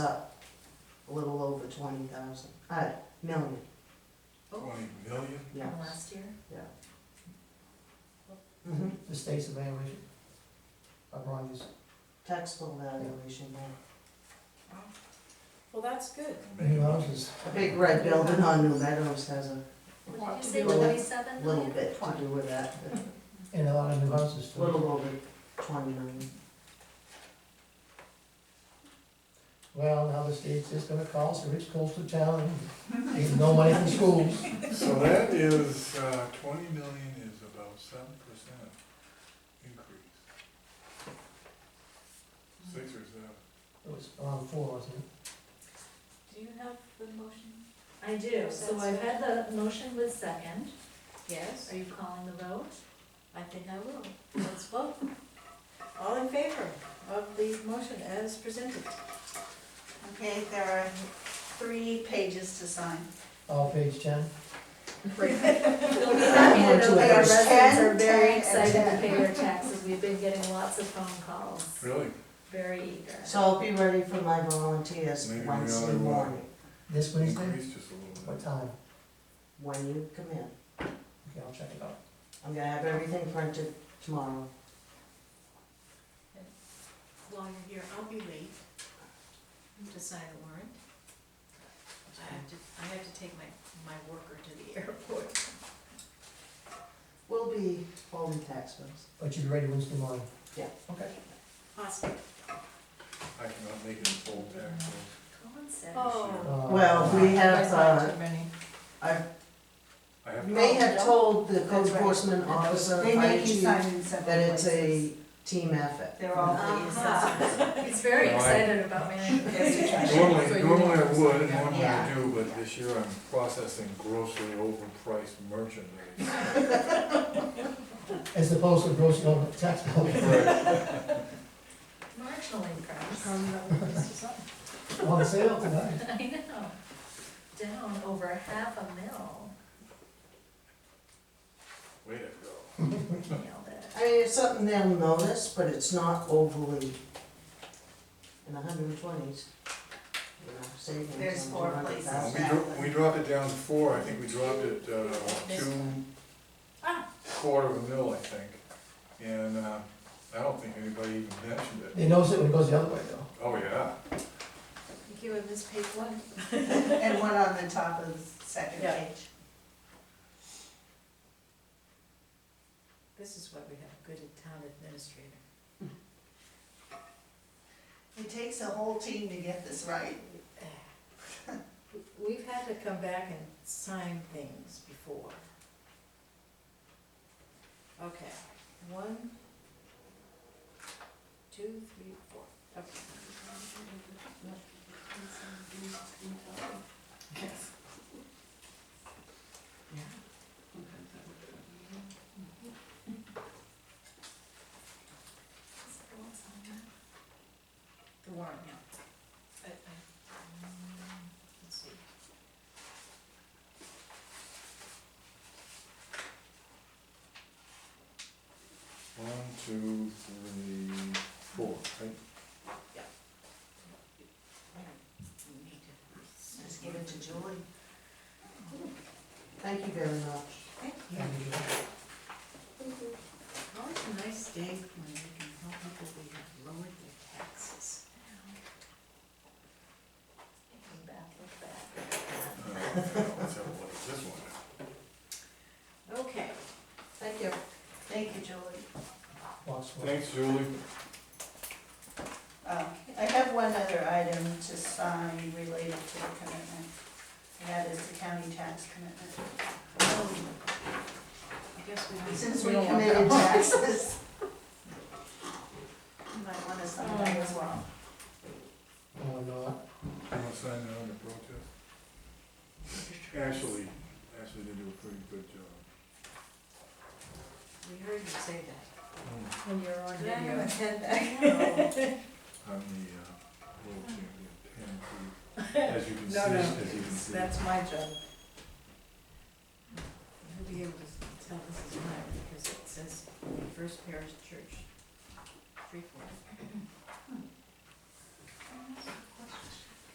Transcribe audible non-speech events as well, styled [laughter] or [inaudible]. up a little over twenty thousand, uh, million, Twenty million? Oh, yeah. From last year? Mhm. the state's evaluation of Ronnie's. Taxable valuation, yeah. Well, that's good. Make a motion. houses. A big red building on New Meadows has a What did you say, Well, twenty-seven little million? bit to do with that, And a lot of new houses a too. little over twenty million. Well, now the state's just gonna call, so Rich goes to town and takes no money from schools. So that is, uh, twenty million is about seven percent increase. Six or seven. It was around four, wasn't it? Do you have the motion? I do, so I've had the motion with second. Yes. Are you calling the vote? I think I will. Let's vote. All in favor of the motion as presented? Okay, there are three pages to sign. All page ten. [laughs] You'll be happy to know that our There's residents ten, are very ten, excited to and pay their taxes. We've been getting lots of phone calls, Really? very eager. So I'll be ready for my volunteers Maybe we oughta Wednesday walk. morning, This Wednesday, Increased just a little what bit. time? when you come in. Okay, I'll check it out. I'm gonna have everything printed tomorrow. While you're here, I'll be late to sign the warrant. I have to, I have to take my, my worker to the [laughs] airport. We'll be holding tax bills. But you'll be ready Wednesday morning? Yeah. Okay. Awesome. I cannot make it full tax. bill. Concept. Oh. Uh, Well, we have, uh, I have, may have told the code That's right. enforcement officer, They make you IG, sign in several that it's places. a team effort. They're all the Uh-huh. assessors. He's very Right. excited about [laughs] managing the Yes. So normally, you normally I did- would, and normally I Yeah. do, but this year I'm processing grossly overpriced merchandise. As opposed to gross, you know, tax bill. Right. Marginal increase. [laughs] On sale tonight. I know, down over half a mil, Way to go. nailed it. I mean, it's something they'll notice, but it's not overly in the hundred and twenties. You know, savings. There's on four 200,000. Well, We places. dro- we dropped it down to four, I think we dropped it, uh, two, Ah. quarter of a mil, I think. And, uh, I don't think anybody even mentioned it. They notice it when it goes the other way though. Oh, yeah. You would miss page one. And one on the top of the second Yeah. page. This is why we have a good town administrator. It takes a whole team to get this right. [sighs] We've had to come back and sign things before. Okay, one, two, three, four, okay. The warrant, yeah. I- I- mm, Let's see. One, two, three, four, right? We need to- Just give it to Julie. Thank you very much. Thank you. Always a nice day when we can help people who have lowered their taxes. Thinking back, look back. Uh, Let's have a look at this one. Okay, Thank you. Thank you, Julie. Lots of- Thanks, Julie. Um, I have one other item to sign related to the commitment, and that is the county tax commitment. I guess we don't. Since we committed taxes, [laughs] you might want to sign that as well. Oh, No, not. You wanna sign that under protest? Actually, actually, they do a pretty good job. We heard you say that. When you're on Yeah, I video. haven't had [laughs] that. I'm the, uh, world champion, pan as you can see, as you can see. my job. [laughs] You'll be able to tell this is mine because it says First Parish Church, three forty.